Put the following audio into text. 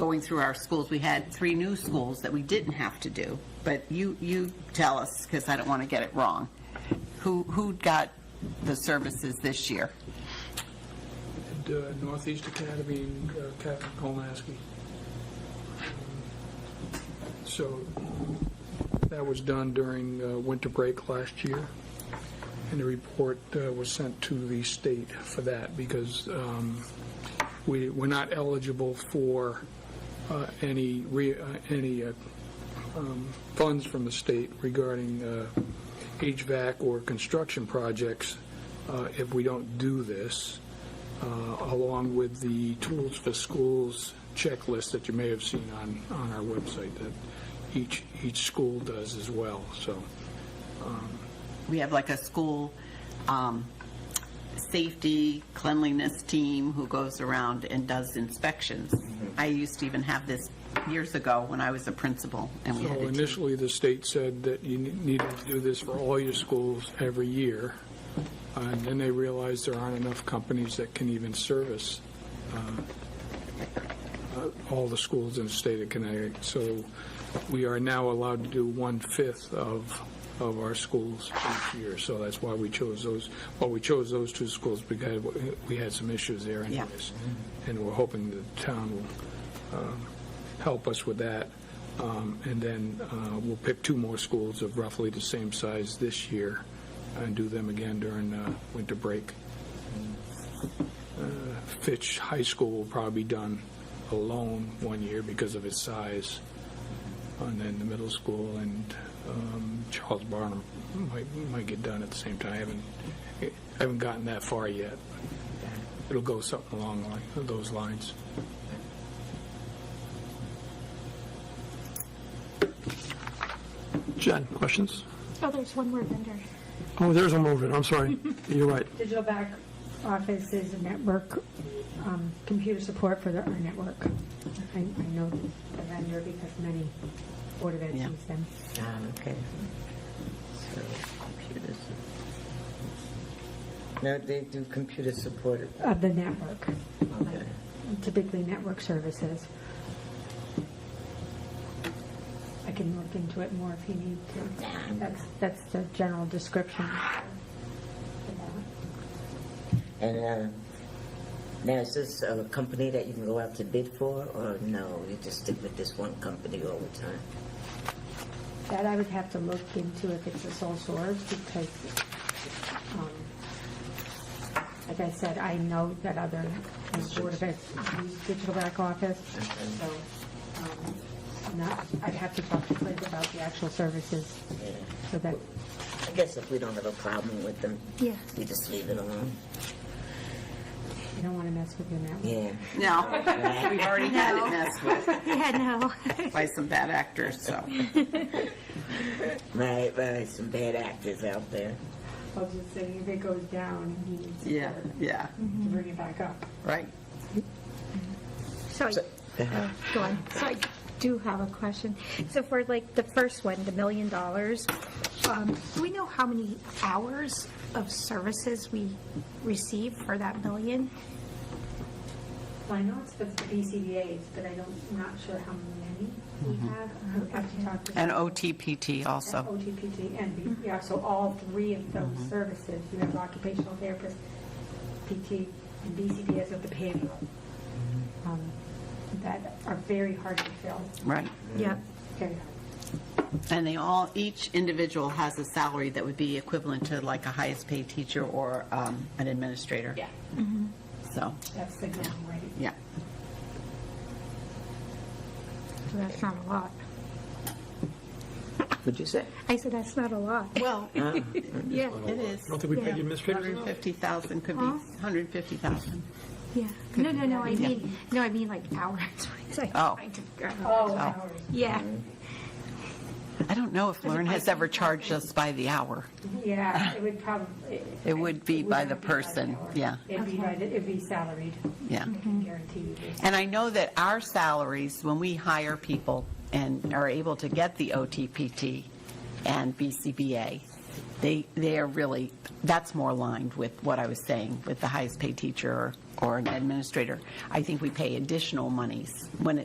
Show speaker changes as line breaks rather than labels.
going through our schools, we had three new schools that we didn't have to do. But you, you tell us, because I don't want to get it wrong. Who, who got the services this year?
at uh, Northeast Academy, uh, Captain Kolmaski. So that was done during uh, winter break last year, and the report uh, was sent to the state for that because um, we, we're not eligible for uh, any, re- uh, any uh, um, funds from the state regarding uh, HVAC or construction projects uh, if we don't do this uh, along with the Tools for Schools checklist that you may have seen on, on our website that each, each school does as well, so.
We have like a school um, safety cleanliness team who goes around and does inspections. I used to even have this years ago when I was a principal, and we
So
had a team.
initially, the state said that you ne- needed to do this for all your schools every year, and then they realized there aren't enough companies that can even service uh, uh, all the schools in the state of Connecticut. So we are now allowed to do one-fifth of, of our schools each year. So that's why we chose those, well, we chose those two schools because we had some issues there
Yeah.
anyways. And we're hoping the town will um, help us with that. Um, And then uh, we'll pick two more schools of roughly the same size this year and do them again during uh, winter break. Uh, Fitch High School will probably be done alone one year because of its size. And then the middle school and um, Charles Barnum might, might get done at the same time. I haven't, I haven't gotten that far yet. It'll go something along like those lines.
Jen, questions?
Oh, there's one more vendor.
Oh, there's a movement, I'm sorry. You're right.
Digital back office is a network, um, computer support for the- our network. I, I know the vendor because many Board of Ed
Yeah.
use them.
Um, okay. So, computers. No, they do computer supported,
Of the network,
okay.
typically network services. I can look into it more if you need to. That's, that's the general description.
And, uh, now is this a company that you can go out to bid for, or no, you just stick with this one company all the time?
That I would have to look into if it's a sole source because, um, like I said, I know that other Board of Ed, use digital back office, so um, I'm not, I'd have to talk to Liz about the actual services.
Yeah.
So that,
I guess if we don't have a problem with them,
Yeah.
we just leave it alone.
you don't want to mess with your network.
Yeah.
No, we've already had it messed with
Yeah, no.
by some bad actors, so.
Right, right, some bad actors out there.
I'll just say if it goes down, he needs
Yeah, yeah,
to bring it back up.
right.
So, I- uh, go on. So I do have a question. So for like the first one, the million dollars, um, do we know how many hours of services we receive for that million?
Well, I know it's the BCBA's, but I don't, not sure how many we have. I have to talk to.
And OTPT
Oh,
also.
OTPT and, B- yeah, so all three of those services, you have occupational therapist, PT, and BCBS with the behavioral, um, that are very hard to fill,
Right.
Yep.
very hard.
And they all, each individual has a salary that would be equivalent to like a highest paid teacher or um, an administrator.
Yeah.
So,
That's the going rate.
yeah.
So That's not a lot.
What'd you say?
I said, that's not a lot.
Well,
Yeah,
it is.
don't think we paid the administrators enough.
150,000 could be,
Huh?
150,000.
yeah. No, no, no, I mean, no, I mean like hours. It's like
Oh.
trying to figure out.
Oh, hours.
Yeah.
I don't know if Lauren has ever charged us by the hour.
Yeah, it would probably.
It would be by the
not
person,
hour.
yeah.
It'd be by, the- it'd be salaried.
Yeah.
I can guarantee you this.
And I know that our salaries, when we hire people and are able to get the OTPT and BCBA, they, they are really, that's more aligned with what I was saying, with the highest paid teacher or an administrator. I think we pay additional monies when it